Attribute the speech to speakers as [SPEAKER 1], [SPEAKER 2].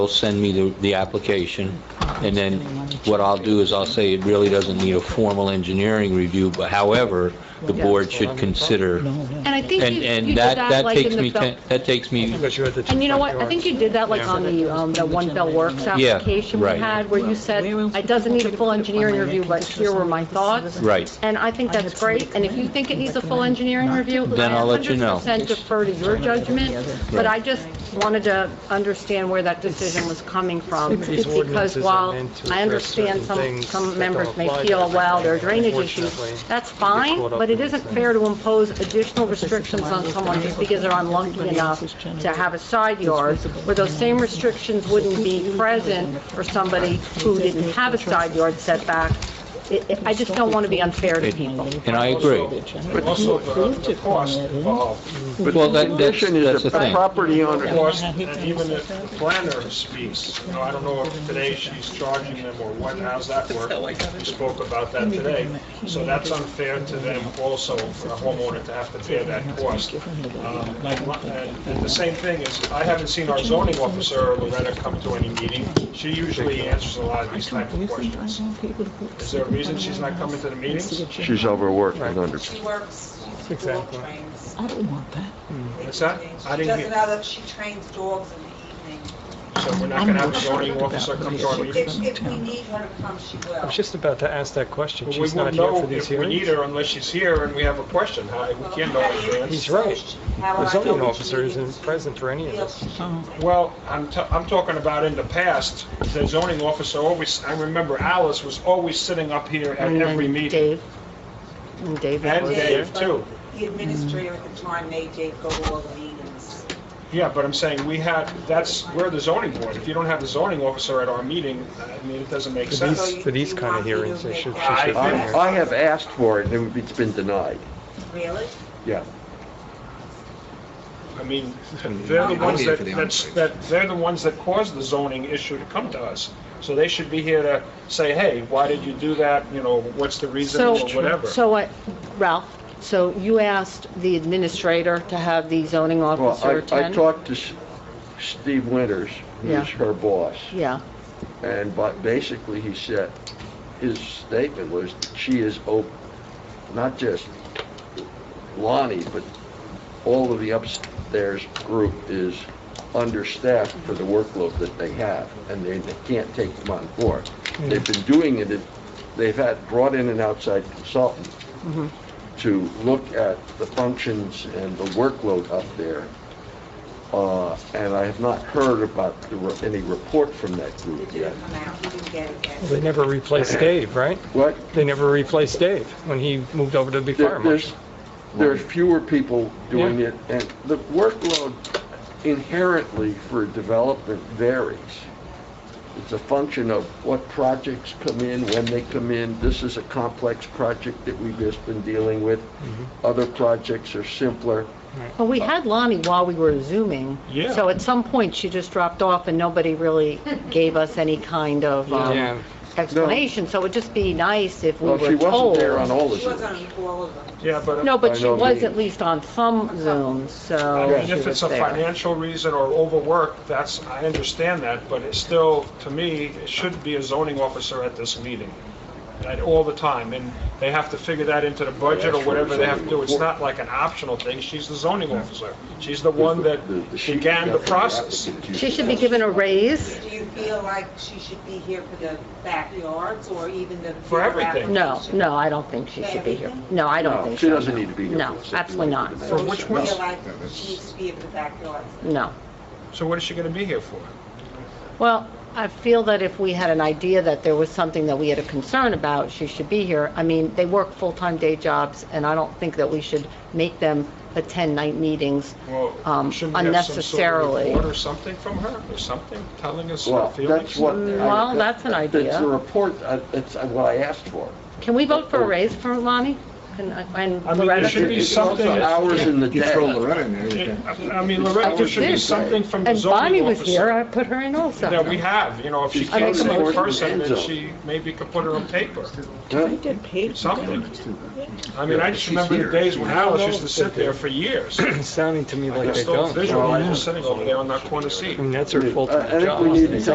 [SPEAKER 1] will send me the, the application, and then what I'll do is I'll say it really doesn't need a formal engineering review, but however, the board should consider,
[SPEAKER 2] No,
[SPEAKER 3] And I think
[SPEAKER 1] and,
[SPEAKER 3] you you did
[SPEAKER 1] and that,
[SPEAKER 3] that
[SPEAKER 1] that
[SPEAKER 3] like
[SPEAKER 1] takes
[SPEAKER 3] in
[SPEAKER 1] me,
[SPEAKER 3] the,
[SPEAKER 1] ten-
[SPEAKER 3] Bel-
[SPEAKER 1] that takes me,
[SPEAKER 4] Because you're at the two
[SPEAKER 3] and you know what,
[SPEAKER 4] front
[SPEAKER 3] I think
[SPEAKER 4] yards.
[SPEAKER 3] you did that like
[SPEAKER 4] Yeah.
[SPEAKER 3] on the, um, the One Bell Works
[SPEAKER 1] Yeah,
[SPEAKER 3] application we
[SPEAKER 1] right.
[SPEAKER 3] had, where you said, it doesn't need a full engineering review, but here were my thoughts.
[SPEAKER 1] right.
[SPEAKER 3] And I think that's great, and if you think it needs a full engineering review,
[SPEAKER 1] Then I'll let you know.
[SPEAKER 3] I 100% defer to your judgment, but I just wanted to understand where that decision was coming from,
[SPEAKER 4] These
[SPEAKER 3] because
[SPEAKER 4] ordinances are
[SPEAKER 3] while
[SPEAKER 4] meant to
[SPEAKER 3] I
[SPEAKER 4] address
[SPEAKER 3] understand
[SPEAKER 4] certain
[SPEAKER 3] some,
[SPEAKER 4] things that
[SPEAKER 3] some
[SPEAKER 4] don't
[SPEAKER 3] members may
[SPEAKER 4] apply to
[SPEAKER 3] feel, well,
[SPEAKER 4] everybody,
[SPEAKER 3] there are drainage
[SPEAKER 4] unfortunately,
[SPEAKER 3] issues, that's
[SPEAKER 4] you get
[SPEAKER 3] fine,
[SPEAKER 4] caught up
[SPEAKER 3] but it
[SPEAKER 4] in
[SPEAKER 3] isn't
[SPEAKER 4] things.
[SPEAKER 3] fair to impose additional restrictions on someone just because they're unlucky enough to have a side yard, where those same restrictions wouldn't be present for somebody who didn't have a side yard setback. It- it- I just don't want to be unfair to people.
[SPEAKER 1] And I agree.
[SPEAKER 5] But also uh, the the cost uh, involved. But
[SPEAKER 1] Well, that-
[SPEAKER 5] the
[SPEAKER 1] that's-
[SPEAKER 5] condition is
[SPEAKER 1] that's the
[SPEAKER 5] that
[SPEAKER 1] thing.
[SPEAKER 5] Property
[SPEAKER 2] Yeah,
[SPEAKER 5] owner,
[SPEAKER 2] I
[SPEAKER 5] cost,
[SPEAKER 2] hate
[SPEAKER 5] and
[SPEAKER 2] to
[SPEAKER 5] even
[SPEAKER 2] use
[SPEAKER 5] if the planner speaks, you know, I don't know if today she's charging them or what, how's that work? We spoke about that today. So that's unfair to them also, for the homeowner to have to bear that cost. Um, like my- And and the same thing is, I haven't seen our zoning officer, Loretta, come to any meeting. She usually answers a lot of these type of questions. Is there a reason she's not coming to the meetings?
[SPEAKER 6] She's overworked and under,
[SPEAKER 7] She works, she dog
[SPEAKER 5] Exactly.
[SPEAKER 7] trains.
[SPEAKER 2] I don't want that.
[SPEAKER 5] What's that? I
[SPEAKER 7] She
[SPEAKER 5] didn't
[SPEAKER 7] doesn't
[SPEAKER 5] hear.
[SPEAKER 7] know that she trains dogs in the evening.
[SPEAKER 5] So we're not
[SPEAKER 2] I'm
[SPEAKER 5] going to have
[SPEAKER 2] not
[SPEAKER 5] a zoning
[SPEAKER 2] sure about
[SPEAKER 5] officer come to
[SPEAKER 2] the
[SPEAKER 5] our
[SPEAKER 2] issue.
[SPEAKER 5] meetings?
[SPEAKER 7] If, if we need her to come, she will.
[SPEAKER 4] I was just about to ask that question.
[SPEAKER 5] But we
[SPEAKER 4] She's
[SPEAKER 5] won't
[SPEAKER 4] not here
[SPEAKER 5] know
[SPEAKER 4] for these
[SPEAKER 5] if we need
[SPEAKER 4] hearings.
[SPEAKER 5] her unless she's here and we have a question. How- We can't know in advance.
[SPEAKER 4] He's right.
[SPEAKER 7] How would
[SPEAKER 4] The
[SPEAKER 7] I know
[SPEAKER 4] zoning
[SPEAKER 7] which
[SPEAKER 4] officer
[SPEAKER 7] meetings
[SPEAKER 4] isn't present for any
[SPEAKER 7] she
[SPEAKER 4] of
[SPEAKER 7] feels
[SPEAKER 4] this.
[SPEAKER 7] she should
[SPEAKER 6] Oh.
[SPEAKER 5] Well, I'm, t- I'm talking about in the past, the zoning officer always, I remember Alice was always sitting up here at
[SPEAKER 3] And
[SPEAKER 5] every
[SPEAKER 3] then
[SPEAKER 5] meeting.
[SPEAKER 3] Dave, and Dave
[SPEAKER 5] And
[SPEAKER 3] was
[SPEAKER 7] take.
[SPEAKER 3] there.
[SPEAKER 5] Dave too.
[SPEAKER 7] The administrator at the time made Dave go to all the meetings.
[SPEAKER 5] Yeah, but I'm saying we had, that's, we're the zoning board. If you don't have the zoning officer at our meeting, I mean, it doesn't make
[SPEAKER 4] For
[SPEAKER 5] sense.
[SPEAKER 4] these, for these kind of hearings, they should, she should
[SPEAKER 7] I-
[SPEAKER 4] have been
[SPEAKER 6] I,
[SPEAKER 4] here.
[SPEAKER 6] I have asked for it, and it's been denied.
[SPEAKER 7] Really?
[SPEAKER 6] Yeah.
[SPEAKER 5] I mean, they're the ones that, that's- that, they're the ones that caused the zoning issue to come to us. So they should be here to say, hey, why did you do that? You know, what's the reason or
[SPEAKER 3] So,
[SPEAKER 5] whatever?
[SPEAKER 3] so what, Ralph, so you asked the administrator to have the zoning
[SPEAKER 6] Well,
[SPEAKER 3] officer
[SPEAKER 6] I, I
[SPEAKER 3] attend?
[SPEAKER 6] talked to S- Steve Winters,
[SPEAKER 3] Yeah.
[SPEAKER 6] who's her boss,
[SPEAKER 3] Yeah,
[SPEAKER 6] and but basically he said, his statement was that she is op, not just Lonnie, but all of the upstairs group is understaffed for the workload that they have, and they, they can't take them on board. They've been doing it, it- they've had, brought in an outside consultant to look at the functions and the workload up there. Uh, and I have not heard about the re- any report from that
[SPEAKER 7] He
[SPEAKER 6] group yet.
[SPEAKER 7] didn't come out, he didn't get it yet.
[SPEAKER 4] They never replaced Dave, right?
[SPEAKER 6] What?
[SPEAKER 4] They never replaced Dave when he moved over to be
[SPEAKER 6] There-
[SPEAKER 4] fire
[SPEAKER 6] There's,
[SPEAKER 4] marshal.
[SPEAKER 6] there's fewer people doing it, and the workload inherently for development varies. It's a function of what projects come in, when they come in. This is a complex project that we've just been dealing with.
[SPEAKER 5] Mm-hmm.
[SPEAKER 6] Other projects are simpler.
[SPEAKER 3] well, we had Lonnie while we were Zooming.
[SPEAKER 5] Yeah.
[SPEAKER 3] So at some point, she just dropped off and nobody really gave us any kind of um,
[SPEAKER 4] Yeah.
[SPEAKER 3] explanation. So it would just be nice if we
[SPEAKER 6] Well, she
[SPEAKER 3] were
[SPEAKER 6] wasn't
[SPEAKER 3] told.
[SPEAKER 6] there on all the
[SPEAKER 7] She was
[SPEAKER 6] Zooms.
[SPEAKER 7] on all of them.
[SPEAKER 5] Yeah, but. uh,
[SPEAKER 3] No,
[SPEAKER 6] I
[SPEAKER 3] but she
[SPEAKER 6] know
[SPEAKER 3] was
[SPEAKER 6] the-
[SPEAKER 3] at least on some Zooms, so.
[SPEAKER 5] I mean,
[SPEAKER 3] she
[SPEAKER 5] if
[SPEAKER 3] was
[SPEAKER 5] it's a
[SPEAKER 3] there.
[SPEAKER 5] financial reason or overwork, that's, I understand that, but it's still, to me, it should be a zoning officer at this meeting, at all the time, and they have to figure that into the budget or whatever they have to do. It's not like an optional thing, she's the zoning officer. She's the one that
[SPEAKER 6] The- the sheet
[SPEAKER 5] began the
[SPEAKER 6] got from
[SPEAKER 5] process.
[SPEAKER 6] applicant you
[SPEAKER 3] She should
[SPEAKER 6] sent
[SPEAKER 3] be
[SPEAKER 6] us.
[SPEAKER 3] given a raise.
[SPEAKER 7] Do you feel like she should be here for the backyards or even the?
[SPEAKER 5] For everything.
[SPEAKER 3] No, no, I don't think she should be here. No, I don't
[SPEAKER 6] No,
[SPEAKER 3] think
[SPEAKER 6] she
[SPEAKER 3] so.
[SPEAKER 6] doesn't need to be here.
[SPEAKER 3] No,
[SPEAKER 6] for this.
[SPEAKER 3] absolutely not.
[SPEAKER 5] For which
[SPEAKER 7] Do you
[SPEAKER 5] one?
[SPEAKER 7] feel like she needs to be for the backyards?
[SPEAKER 3] No.
[SPEAKER 5] So what is she gonna be here for?
[SPEAKER 3] Well, I feel that if we had an idea that there was something that we had a concern about, she should be here. I mean, they work full-time day jobs, and I don't think that we should make them attend night meetings
[SPEAKER 5] Well,
[SPEAKER 3] um,
[SPEAKER 5] shouldn't we have some sort of
[SPEAKER 3] unnecessarily.
[SPEAKER 5] report or something from her, or something, telling us her
[SPEAKER 6] Well,
[SPEAKER 5] feelings?
[SPEAKER 6] that's what. I-
[SPEAKER 3] Mm, Well, that's an
[SPEAKER 6] It's a
[SPEAKER 3] idea.
[SPEAKER 6] report, uh, it's uh, what I asked for.
[SPEAKER 3] Can we vote for a raise for Lonnie? Can I- And
[SPEAKER 5] I mean, there
[SPEAKER 3] Loretta?
[SPEAKER 5] should be something, I
[SPEAKER 6] Hours in the
[SPEAKER 2] You throw
[SPEAKER 6] day.
[SPEAKER 2] Loretta in there, you can.
[SPEAKER 5] I mean, Loretta, there should be something from the
[SPEAKER 3] And Bonnie
[SPEAKER 5] zoning
[SPEAKER 3] was here,
[SPEAKER 5] officer
[SPEAKER 3] I put her in also.
[SPEAKER 5] that we have, you know, if she
[SPEAKER 6] I
[SPEAKER 5] can't
[SPEAKER 3] make a
[SPEAKER 5] see in
[SPEAKER 6] motion.
[SPEAKER 5] person, then she maybe could put her on paper,
[SPEAKER 6] Huh?
[SPEAKER 8] Get paid.
[SPEAKER 5] something. I mean, I just remember the days when Alice used to sit there for years.
[SPEAKER 4] It's sounding to me
[SPEAKER 5] I
[SPEAKER 4] like
[SPEAKER 5] can
[SPEAKER 4] they
[SPEAKER 5] still
[SPEAKER 4] don't. I
[SPEAKER 5] visualize her sitting over there on that corner seat.
[SPEAKER 4] mean, that's her
[SPEAKER 6] I I
[SPEAKER 4] full-time
[SPEAKER 6] think
[SPEAKER 4] job.
[SPEAKER 6] we need to